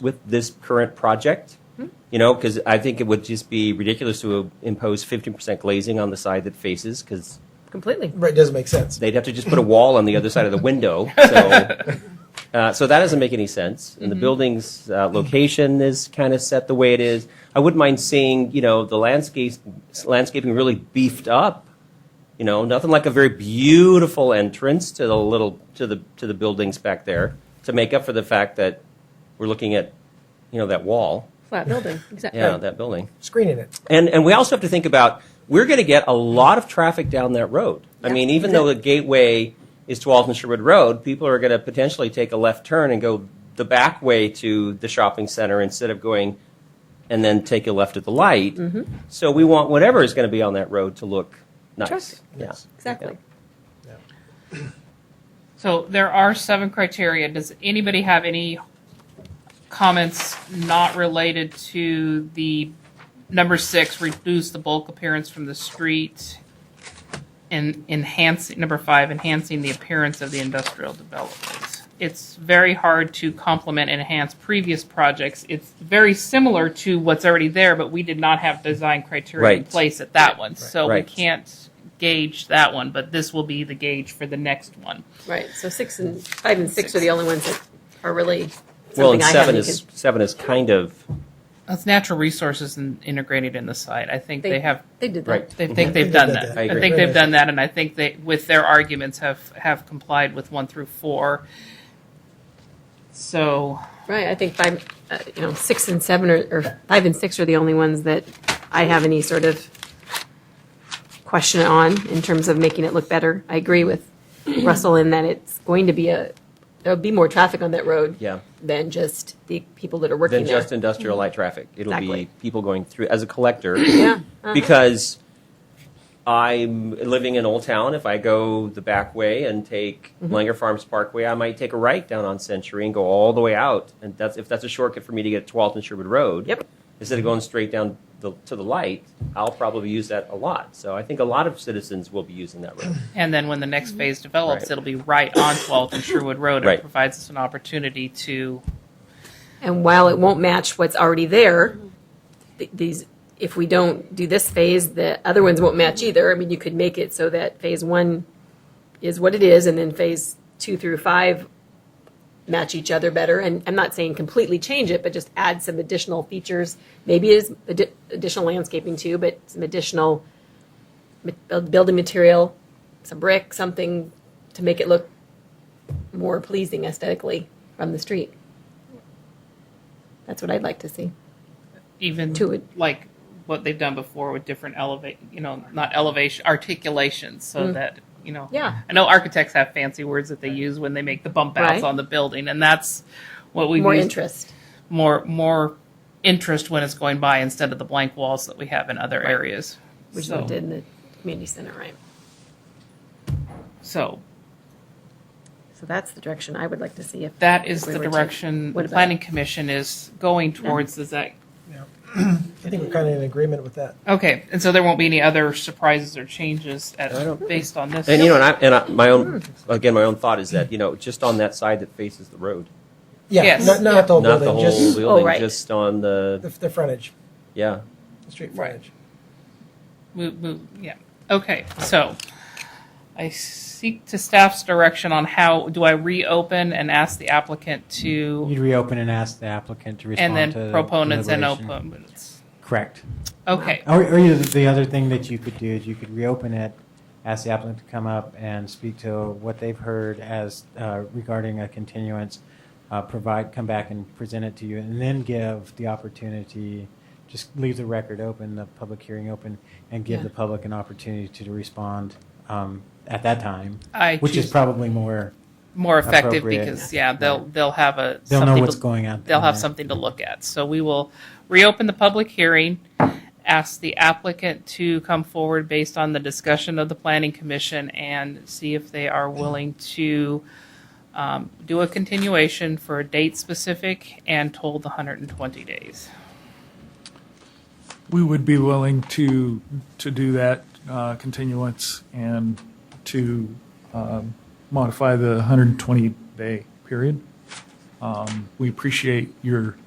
with this current project. You know, because I think it would just be ridiculous to impose 15% glazing on the side that faces, because completely. Right, doesn't make sense. they'd have to just put a wall on the other side of the window. So, uh, so that doesn't make any sense. And the building's uh, location is kind of set the way it is. I wouldn't mind seeing, you know, the landscape, landscaping really beefed up. You know, nothing like a very beautiful entrance to the little to the to the buildings back there to make up for the fact that we're looking at, you know, that wall. Flat building, exactly. Yeah, that building. Screening it. And, and we also have to think about we're going to get a lot of traffic down that road. I mean, even though the gateway is to Alton Sherwood Road, people are going to potentially take a left turn and go the back way to the shopping center instead of going and then take a left at the light. Mm-hmm. So we want whatever is going to be on that road to look nice. Attractive. Yeah. Exactly. Yeah. So there are seven criteria. Does anybody have any comments not related to the number six, reduce the bulk appearance from the street? And enhancing, number five, enhancing the appearance of the industrial developments. It's very hard to complement and enhance previous projects. It's very similar to what's already there, but we did not have design criteria in Right. place at that one. So we Right. can't gauge that one, but this will be the gauge for the next one. Right. So six and five and six, are the only ones that are really something Well, and I seven haven't is seven is kind of That's natural resources and integrated in the site. I think they, They- have. They did that. right. They think they've They done did that. that. I I, agree. think they've done that, and I think they, with their arguments, have have complied with one through four. So Right. I think five, uh, you know, six and seven are, or five and six are the only ones that I have any sort of question on in terms of making it look better. I agree with Russell in that it's going to be a, there'll be more traffic on that road Yeah. than just the people that are working than there. just industrial light traffic. It'll Exactly. be people going through as a collector. yeah. uh, because I'm living in Old Town. If I go the back way and take Mm-hmm. Langer Farms Parkway, I might take a right down on Century and go all the way out. And that's if that's a shortcut for me to get to Alton Sherwood Road. Yep. Instead of going straight down the, to the light, I'll probably use that a lot. So I think a lot of citizens will be using that road. And then when the next phase develops, Right. it'll be right on 12th and Sherwood Road. Right. It provides us an opportunity to And while it won't match what's already there, th- these, if we don't do this phase, the other ones won't match either. I mean, you could make it so that phase one is what it is, and then phase two through five match each other better. And I'm not saying completely change it, but just add some additional features. Maybe it is addi- additional landscaping too, but some additional ma- build- building material, some brick, something to make it look more pleasing aesthetically from the street. That's what I'd like to see. even To it. like what they've done before with different elevate, you know, not elevation articulations, so that you know. Mm. Yeah. I know architects have fancy words that they use when they make the bump outs Right. on the building, and that's what we More use- interest. more more interest when it's going by instead of the blank walls that we have in other areas. which so, we did in the community center, right? so So that's the direction I would like to see if. that is if we the were to- direction What the about- planning commission is going towards. Is that I think we're kind of in agreement with that. Okay, and so there won't be any other surprises or changes at, I don't- based on this. And you know, and, I, and I, my own again, my own thought is that you know, just on that side that faces the road, Yeah, Yes. not, not the whole not the building, whole Oh, just building, Oh, right. just on the, the the frontage, yeah. the street Right. frontage. Move, move, yeah. Okay, so I seek to staff's direction on how do I reopen and ask the applicant to, You'd reopen and ask the applicant to and respond then to proponents and deliberation. opponents. Correct. Okay, Or, or you- the other thing that you could do is you could reopen it, ask the applicant to come up and speak to what they've heard as uh, regarding a continuance, uh, provide, come back and present it to you, and then give the opportunity, just leave the record open, the public hearing open, and give Yeah. the public an opportunity to respond um, at that time, I which is choose probably more, more effective appropriate. because, yeah, they'll, they'll have a. they'll know something what's to- going on. They'll in have there. something to look at. So we will reopen the public hearing, ask the applicant to come forward based on the discussion of the planning commission and see if they are willing to um, do a continuation for a date specific and told the 120 days. We would be willing to, to do that uh, continuance and to um, modify the 120-day period. Um, We appreciate your